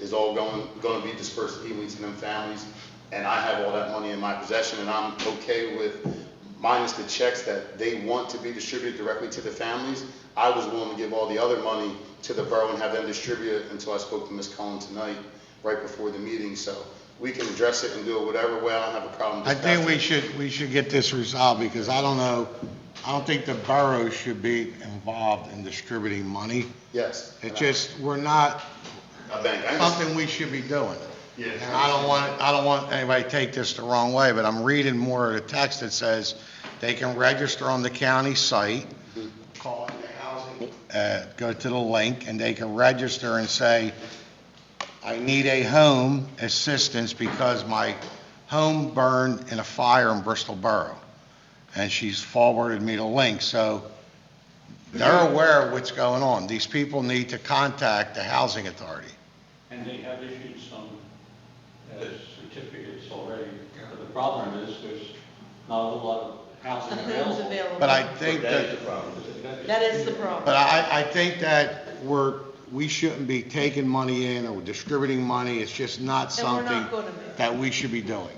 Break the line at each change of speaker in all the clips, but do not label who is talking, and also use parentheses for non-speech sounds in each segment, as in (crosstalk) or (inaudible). is all going, gonna be dispersed to Ewings and them families, and I have all that money in my possession, and I'm okay with minus the checks that they want to be distributed directly to the families. I was willing to give all the other money to the borough and have them distribute it until I spoke to Ms. Cullen tonight, right before the meeting, so we can address it and do it whatever way, I don't have a problem.
I
just
think we
passing it.
should, we should get this resolved, because I don't know, I don't think the borough should be involved in distributing money.
Yes.
It just, we're not,
A bank, I understand.
something we should be doing.
Yeah.
And I don't want, I don't want anybody to take this the wrong way, but I'm reading more of the text that says they can register on the county site, call it the housing, uh, go to the link, and they can register and say, I need a home assistance because my home burned in a fire in Bristol Borough. And she's forwarded me the link, so they're aware of what's going on. These people need to contact the housing authority.
And they have issued some uh, certificates already. But the problem is, there's not a whole lot of (laughs) housing
The homes
available.
available.
But I think that...
That is the problem.
That is the problem.
But I, I think that we're, we shouldn't be taking money in or distributing money, it's just not
And we're not
something
gonna be.
that we should be doing.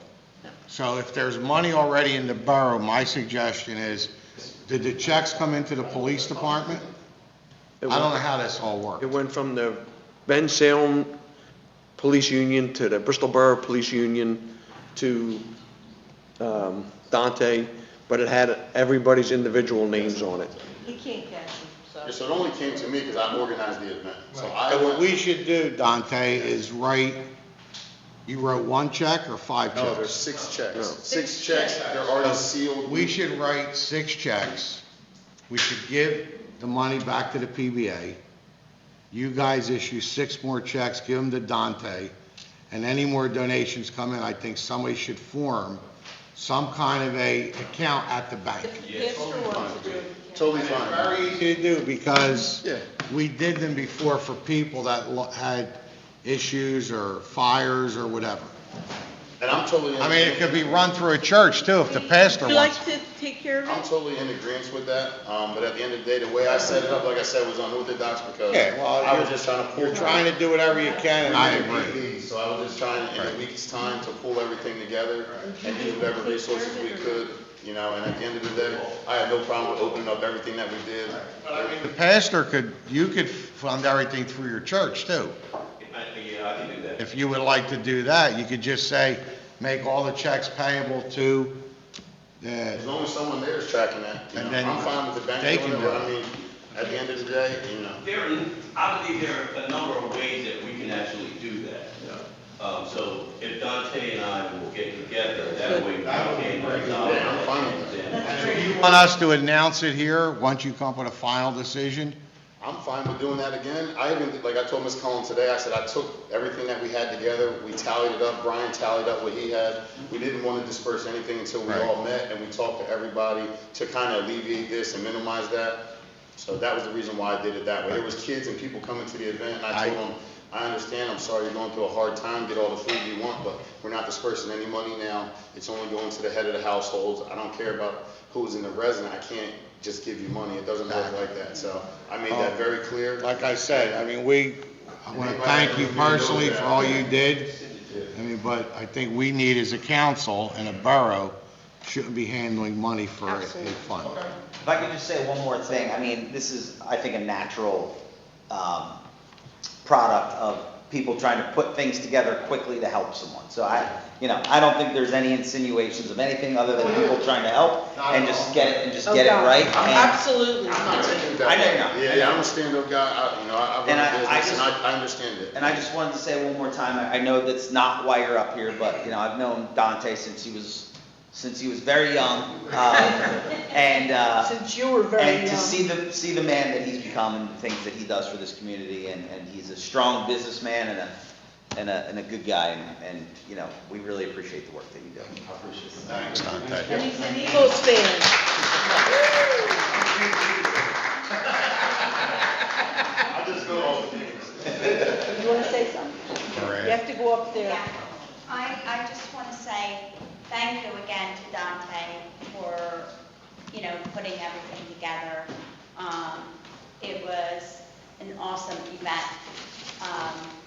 So if there's money already in the borough, my suggestion is, did the checks come into the police department? I don't know how this all works.
It went from the Ben Salem Police Union to the Bristol Borough Police Union to um, Dante, but it had everybody's individual names on it.
You can't catch them, so.
Yeah, So it only came to me because I organized the event, so I
And
went.
what we should do, Dante, is write, you wrote one check or five
No, there's
checks?
six checks.
Six
Six checks,
checks.
they're already sealed.
We should write six checks. We should give the money back to the PBA. You guys issue six more checks, give them to Dante, and any more donations come in, I think somebody should form some kind of a account at the bank.
If the pastor wants to do it, he can.
Totally fine.
Very easy to do, because
Yeah.
we did them before for people that lo- had issues or fires or whatever.
And I'm totally. in
I mean, it could be
agreement.
run through a church too, if the pastor
Would you
wants.
like to take care of
I'm
it?
totally in agreement with that, um, but at the end of the day, the way I set it up, like I said, was unorthodox because
Yeah, well,
I was
you're-
just trying to pull.
You're trying to do whatever you can, and I agree.
So I was just trying, in a week's time, to pull everything together and use whatever resources we could, you know, and at the end of the day, I had no problem with opening up everything that we did.
The pastor could, you could fund everything through your church too.
I- Yeah, I can do that.
If you would like to do that, you could just say, make all the checks payable to
As
the,
long as someone there is tracking that, you
And
know,
then
I'm fine with the
they
bank
can
doing it,
do
but
it.
I mean, at the end of the day, you know.
There, are- I believe there are a number of ways that we can actually do that. Um, so if Dante and I will get together, that way we can resolve.
Yeah, I'm fine with
that.
That's great.
you want us to announce it here, once you come up with a final decision?
I'm fine with doing that again. I even, did- like I told Ms. Cullen today, I said I took everything that we had together, we tallied it up, Brian tallied up what he had. We didn't want to disperse anything until we
Right.
all met and we talked to everybody to kind of alleviate this and minimize that. So that was the reason why I did it that way. There was kids and people coming to the event and I
I-
told them, I understand, I'm sorry you're going through a hard time, get all the food you want, but we're not dispersing any money now. It's only going to the head of the households. I don't care about who's in the resident. I can't just give you money. It doesn't work like that. So I made
Oh.
that very clear.
Like I said, I mean, we, I want to thank you personally for all you did. I mean, but I think we need as a council and a borough, shouldn't be handling money for a a fund.
If I could just say one more thing, I mean, this is, I think, a natural um, product of people trying to put things together quickly to help someone. So I, you know, I don't think there's any insinuations of anything other than people trying to help and just get it, and just
Oh,
get it
God.
right. and-
Absolutely.
I know you're not.
Yeah, yeah, I'm a stand-up guy. I, you know, I I
And I-
run a
I
business and
just-
I, I understand it.
And I just wanted to say one more time, I I know that's not why you're up here, but, you know, I've known Dante since he was, since he was very young. um, And, uh,
Since you were very
And to
young.
see the, see the man that he's become and the things that he does for this community, and, and he's a strong businessman and a, and a, and a good guy, and, and, you know, we really appreciate the work that you do.
Thanks, Dante.
And he's an Eagles fan.
I just go off the
You want to say something? You have to go up there.
Yeah, I, I just want to say thank you again to Dante for, you know, putting everything together. Um, It was an awesome event. Um,